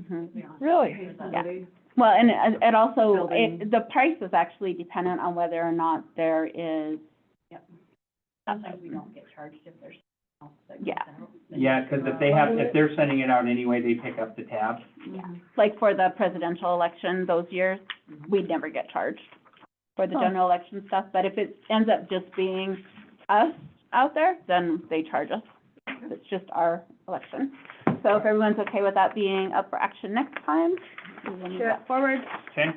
Mhm. Oh, Yeah. Really? Well, and it, it also, Building. it, the price is actually dependent on whether or not there is, Sometimes we don't get charged if there's. something else that comes Yeah. out. Yeah, 'cause if they have, if they're sending it out anyway, they pick up the tab. Mhm. like for the presidential election those years, Mm-hmm. we'd never get charged for the Huh. general election stuff, but if it ends up just being us out there, then they charge us. It's just our election. So if everyone's okay with that being up for action next time, we will move that forward. Okay,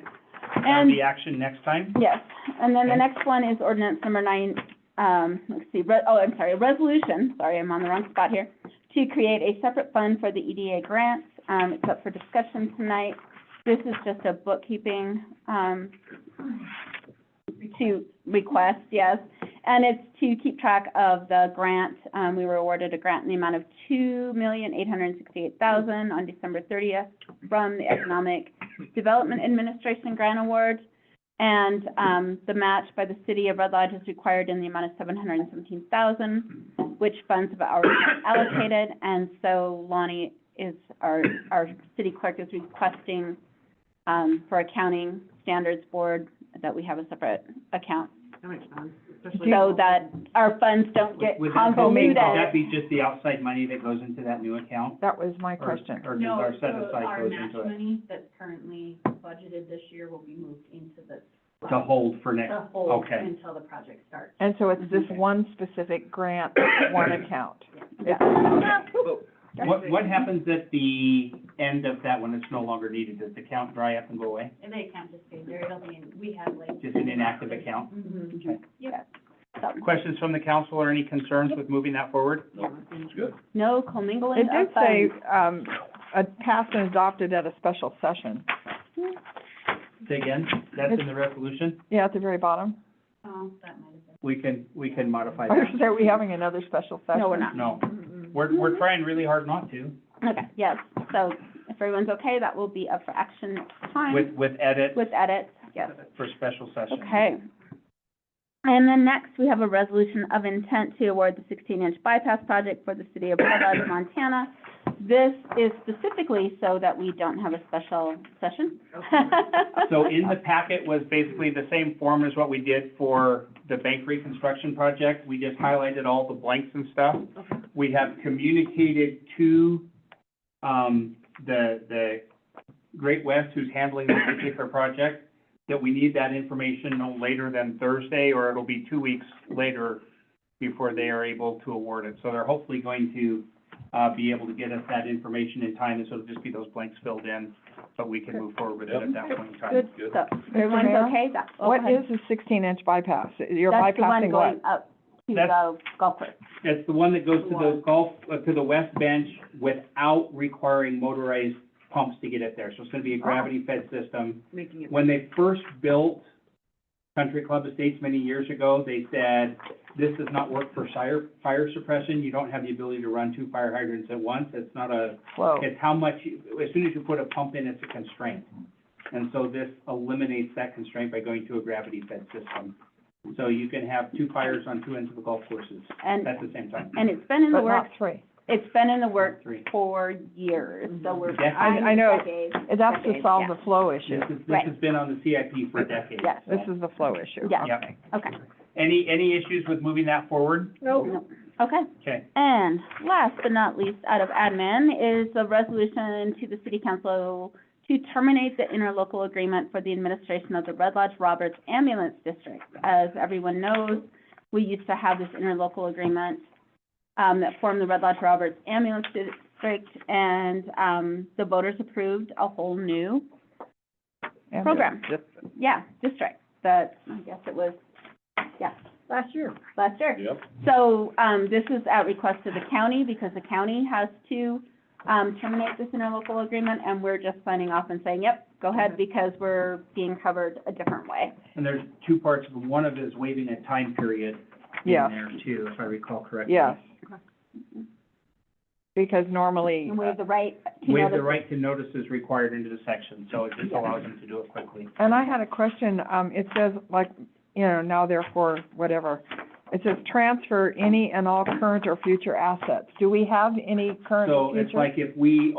that'll And be action next time. Yes, and then the Okay. next one is ordinance number nine, um, let's see, re- oh, I'm sorry, a resolution, sorry, I'm on the wrong spot here, to create a separate fund for the EDA grants, um, it's up for discussion tonight. This is just a bookkeeping, um, to request, yes, and it's to keep track of the grant. Um, we were awarded a grant in the amount of two million, eight hundred and sixty-eight thousand on December thirtieth from the Economic Development Administration Grant Award. And, um, the match by the city of Red Lodge is required in the amount of seven hundred and seventeen thousand, which funds have already been allocated, and so Lonnie is, our, our city clerk is requesting, um, for accounting standards board, that we have a separate account, That makes sense, especially- so that our funds don't get Would that be- Would convoluted. that be just the outside money that goes into that new account? That was my Or- question. Or does No, our set so aside our goes match into it money that's currently budgeted this year will be moved into the. to hold for next? To hold okay. until the project starts. And so it's this Okay. one specific grant, one account. Yeah. What, what happens at the end of that when it's no longer needed? Does the account dry up and go away? And they can't just stay there, it'll be, in- we have like. Just an inactive account? Mhm. Okay. Yep. So, Questions from the council or any concerns with moving that forward? No commingling It of did funds. say, um, uh, passed and adopted at a special session. Say again, that's in the resolution? Yeah, at the very bottom. Oh, that might have been. We can, we can modify Or that. is- are we having another special session? No, we're not. No, we're, we're trying really hard not to, Okay, yes, so if everyone's okay, that will be up for action next time. with, with edit With edits, yes. for special session. Okay. And then next, we have a resolution of intent to award the sixteen-inch bypass project for the city of Red Lodge, Montana. This is specifically so that we don't have a special session. So in the packet was basically the same form as what we did for the bank reconstruction project. We just highlighted all the blanks and stuff. We have communicated to, um, the, the Great West, who's handling this particular project, that we need that information no later than Thursday, or it'll be two weeks later before they are able to award it. So they're hopefully going to, uh, be able to get us that information in time, and so it'll just be those blanks filled in, but we can move forward with it at that point in time. Good, so, if everyone's Mayor? okay, that, oh, What go ahead. is a sixteen inch bypass? You're That's the one bypassing going what? up to That's- the golf course. It's the one that goes to the Water. golf, uh, to the west bench without requiring motorized pumps to get it there. So it's gonna be a gravity-fed system. Making it. When they first built Country Club Estates many years ago, they said, this does not work for fire, fire suppression. You don't have the ability to run two fire hydrants at once. It's not a Whoa. it's how much, you- as soon as you put a pump in, it's a constraint. And so this eliminates that constraint by going to a gravity-fed system. So you can have two fires on two ends of the golf courses And, at the same time. and it's been in the But works, not three. it's been in the works Three. for years, so we're. Decades. I- I know. Decades. That's to Decades, solve yeah. the flow issue. This is, this Right. has been on the CIP for decades. Yes. This so. is the flow issue. Yeah. Yep. Okay, Any, any issues with moving that forward? okay. Okay. And last but not least, out of admin, is a resolution to the city council to terminate the interlocal agreement for the administration of the Red Lodge Roberts Ambulance District. As everyone knows, we used to have this interlocal agreement, um, that formed the Red Lodge Roberts Ambulance District, and, um, the voters approved a whole new, And Program. it's just- yeah, district, that, I guess it was, yeah. Last year. last year. So, um, this is at request of the county, because the county has to, um, terminate this interlocal agreement, and we're just signing off and saying, yep, go ahead, because we're being covered a different way. And there's two parts of it. One of it is waiving a time period in Yeah. there too, if I recall correctly. Yes. Because normally, uh, And we have the right to Waive the notice. right to notice is required under the section, so it just allows them to do it quickly. And I had a question, um, it says like, you know, now therefore, whatever. It says transfer any and all current or future assets. Do we have any current So or future? it's like if we